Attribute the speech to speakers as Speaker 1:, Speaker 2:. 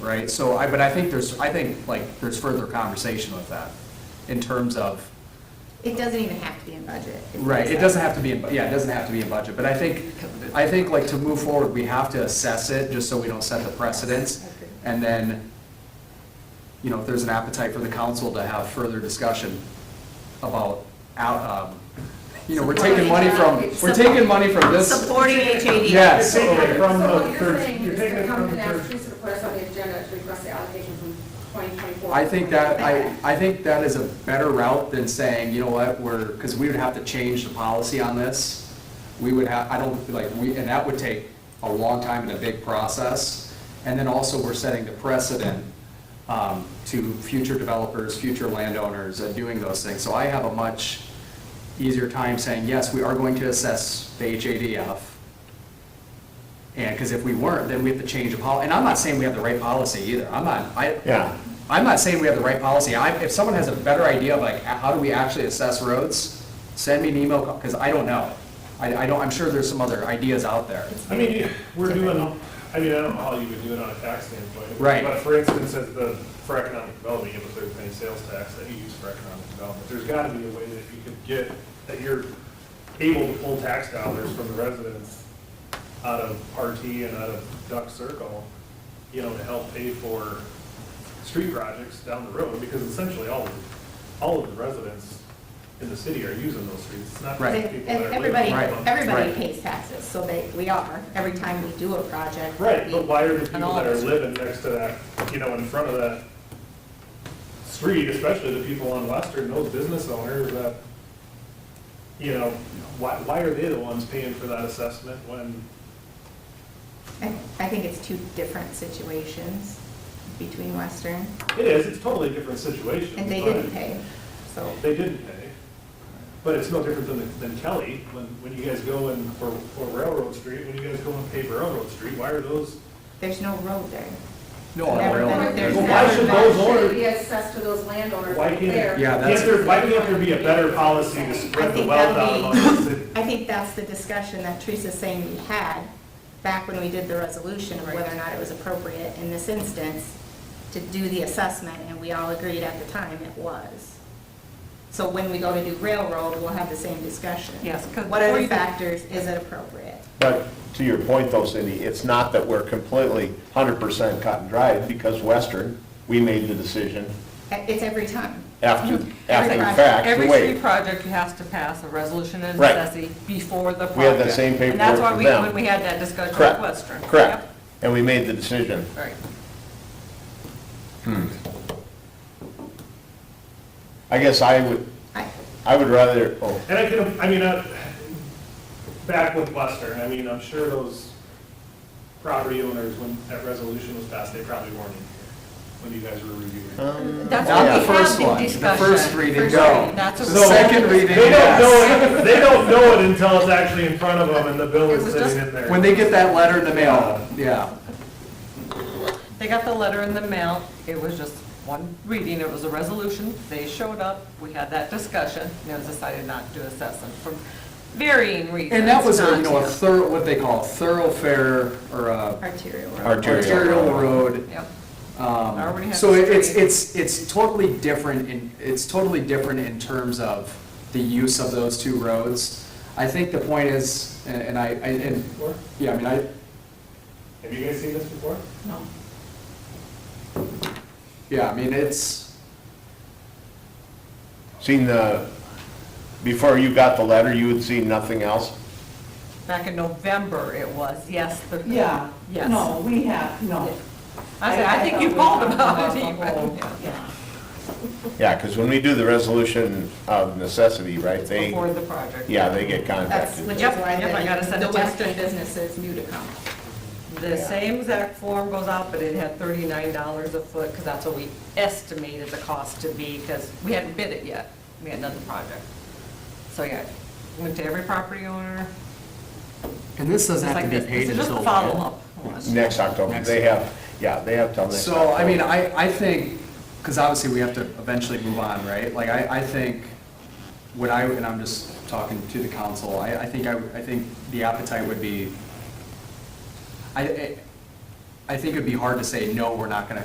Speaker 1: right? So I, but I think there's, I think like there's further conversation with that in terms of,
Speaker 2: It doesn't even have to be in budget. It's
Speaker 1: right, it
Speaker 2: outside.
Speaker 1: doesn't have to be, in bu- yeah, it doesn't have to be in budget, but I think, I think like to move forward, we have to assess it, just so we don't set the precedence. And then, you know, if there's an appetite for the council to have further discussion about, out, um, you know, we're taking money from, we're taking money from this.
Speaker 3: Supporting HAD.
Speaker 1: Yes.
Speaker 4: You're taking it from
Speaker 5: So
Speaker 4: the
Speaker 5: what you're
Speaker 4: third-
Speaker 5: saying
Speaker 4: you're
Speaker 5: is
Speaker 4: taking
Speaker 5: to
Speaker 4: it
Speaker 5: come
Speaker 4: from
Speaker 5: to
Speaker 4: the
Speaker 5: the next
Speaker 4: third.
Speaker 5: piece of request on the agenda to request the allocation from 2024.
Speaker 1: I think that, I, I think that is a better route than saying, you know what, we're, because we would have to change the policy on this. We would have, I don't, like, we, and that would take a long time and a big process. And then also, we're setting the precedent um, to future developers, future landowners, and doing those things. So I have a much easier time saying, yes, we are going to assess the HADF. And, because if we weren't, then we have to change a policy. and I'm not saying we have the right policy either, I'm not, I.
Speaker 4: Yeah.
Speaker 1: I'm not saying we have the right policy, I, if someone has a better idea of like, how do we actually assess roads, send me an email, because I don't know. I, I don't, I'm sure there's some other ideas out there.
Speaker 4: I mean, we're doing, I mean, I don't know how you would do it on a tax standpoint.
Speaker 1: Right.
Speaker 4: But for instance, as the, for economic development, you have a third-party sales tax that you use for economic development. There's got to be a way that you could get, that you're able to pull tax dollars from the residents out of RT and out of Duck Circle, you know, to help pay for street projects down the road, because essentially all, of all of the residents in the city are using those streets. It's not
Speaker 1: Right.
Speaker 4: just
Speaker 2: If-
Speaker 4: people that are
Speaker 2: if
Speaker 4: living
Speaker 2: Everybody,
Speaker 4: on them.
Speaker 1: Right.
Speaker 2: everybody pays taxes, so they, we are, every time we do a project.
Speaker 4: Right, but
Speaker 2: we-
Speaker 4: why are the
Speaker 2: and
Speaker 4: people
Speaker 2: all
Speaker 4: that are
Speaker 2: of us-
Speaker 4: living next to that, you know, in front of that street, especially the people on Western, those business owners that, you know, why, why are they the ones paying for that assessment when,
Speaker 2: I I think it's two different situations between Western,
Speaker 4: it is, it's totally a different situation.
Speaker 2: and they
Speaker 4: but
Speaker 2: didn't pay, so.
Speaker 4: They didn't pay, but it's no different than, than Kelly, when, when you guys go and, or or Railroad Street, when you guys go and pave Railroad Street, why are those,
Speaker 2: There's no road there.
Speaker 1: No, I
Speaker 2: Never
Speaker 1: don't
Speaker 2: been
Speaker 1: know.
Speaker 2: up there.
Speaker 4: Well, why should those owners-
Speaker 5: Be assessed to those landowners
Speaker 4: why
Speaker 5: right
Speaker 4: can't,
Speaker 5: there.
Speaker 1: Yeah,
Speaker 4: can't
Speaker 1: that's-
Speaker 4: there, why can't there be a better policy to
Speaker 2: I
Speaker 4: spread the
Speaker 2: think
Speaker 4: wealth out
Speaker 2: that'd be-
Speaker 4: among the city?
Speaker 2: I think that's the discussion that Teresa's saying we had back when we did the resolution of whether or not it was appropriate in this instance to do the assessment, and we all agreed at the time it was. So when we go to do railroad, we'll have the same discussion.
Speaker 3: Yes, 'cause
Speaker 2: What are
Speaker 3: before
Speaker 2: the
Speaker 3: you do-
Speaker 2: factors? Is it appropriate?
Speaker 6: But to your point though, Cindy, it's not that we're completely 100% cut and dried because Western, we made the decision
Speaker 2: It's every time.
Speaker 6: after, after the
Speaker 2: project-
Speaker 6: fact, to
Speaker 3: Every street
Speaker 6: wait.
Speaker 3: project has to pass a resolution and
Speaker 6: Right.
Speaker 3: necessity before the project.
Speaker 6: We had that same
Speaker 3: And that's
Speaker 6: paperwork
Speaker 3: why
Speaker 6: for
Speaker 3: we,
Speaker 6: them.
Speaker 3: when we had that discussion with
Speaker 6: Correct,
Speaker 3: Western.
Speaker 6: correct. And we made the decision.
Speaker 3: Yep. Right.
Speaker 6: I guess I would,
Speaker 2: I-
Speaker 6: I would rather, oh,
Speaker 4: And I could, I mean, uh, back with Western, I mean, I'm sure those property owners, when that resolution was passed, they probably weren't in here when you guys were reviewing. it.
Speaker 1: Um,
Speaker 3: That's
Speaker 1: Not
Speaker 3: why
Speaker 1: the
Speaker 3: we
Speaker 1: first
Speaker 3: have
Speaker 1: one.
Speaker 3: the
Speaker 1: The
Speaker 3: discussion.
Speaker 1: first reading,
Speaker 3: First
Speaker 1: no.
Speaker 3: reading, That's
Speaker 1: The
Speaker 3: what.
Speaker 1: second reading,
Speaker 4: They don't
Speaker 1: yes.
Speaker 4: know it, they don't know it until it's actually in front of them and the bill
Speaker 3: It
Speaker 4: is
Speaker 3: was just-
Speaker 4: sitting in there.
Speaker 1: When they get that letter in the mail, yeah.
Speaker 3: They got the letter in the mail, it was just one reading, it was a resolution, they showed up, we had that discussion, and it was decided not to assess them for varying reasons.
Speaker 1: And that was, a, you
Speaker 3: not
Speaker 1: know, a
Speaker 3: to.
Speaker 1: thorough, what they call a thoroughfare or a
Speaker 2: Arterial.
Speaker 6: Arterial.
Speaker 1: arterial road.
Speaker 3: Yep. already
Speaker 1: Um,
Speaker 3: have
Speaker 1: So
Speaker 3: the
Speaker 1: it- it's,
Speaker 3: street.
Speaker 1: it's, it's totally different in, it's totally different in terms of the use of those two roads. I think the point is, and and I, I- and,
Speaker 4: Before?
Speaker 1: yeah, I mean, I,
Speaker 4: Have you guys seen this before?
Speaker 3: No.
Speaker 1: yeah, I mean, it's,
Speaker 6: seen the, before you got the letter, you had seen nothing else?
Speaker 3: Mm-hmm. Back in November it was, yes. the-
Speaker 7: Yeah,
Speaker 3: Yes.
Speaker 7: no, we have, no.
Speaker 3: I said, I think you called about it
Speaker 7: I thought we
Speaker 3: even.
Speaker 7: talked about the whole- yeah.
Speaker 6: Yeah, because when we do the resolution of necessity, right, they,
Speaker 3: Before the project.
Speaker 6: yeah, they get
Speaker 2: That's
Speaker 6: contacted.
Speaker 2: which is
Speaker 3: Yep,
Speaker 2: why
Speaker 3: yep, I gotta
Speaker 2: the
Speaker 3: send
Speaker 2: the
Speaker 3: it to you.
Speaker 2: Western businesses knew to come.
Speaker 3: The same exact form goes out, but it had thirty-nine dollars a foot, because that's what we estimated the cost to be, because we hadn't bid it yet. We had another project. So, yeah, went to every property owner,
Speaker 1: and this
Speaker 3: just
Speaker 1: doesn't have
Speaker 3: like
Speaker 1: to be
Speaker 3: this.
Speaker 1: paid
Speaker 3: This is
Speaker 1: until.
Speaker 3: just a
Speaker 1: when?
Speaker 3: follow-up. almost.
Speaker 6: Next October,
Speaker 1: Next.
Speaker 6: they have, yeah, they have till next
Speaker 1: So, I mean,
Speaker 6: October.
Speaker 1: I, I think, because obviously we have to eventually move on, right? Like, I, I think, what I, and I'm just talking to the council, I, I think, I, I think the appetite would be, I, I- I think it'd be hard to say, no, we're not gonna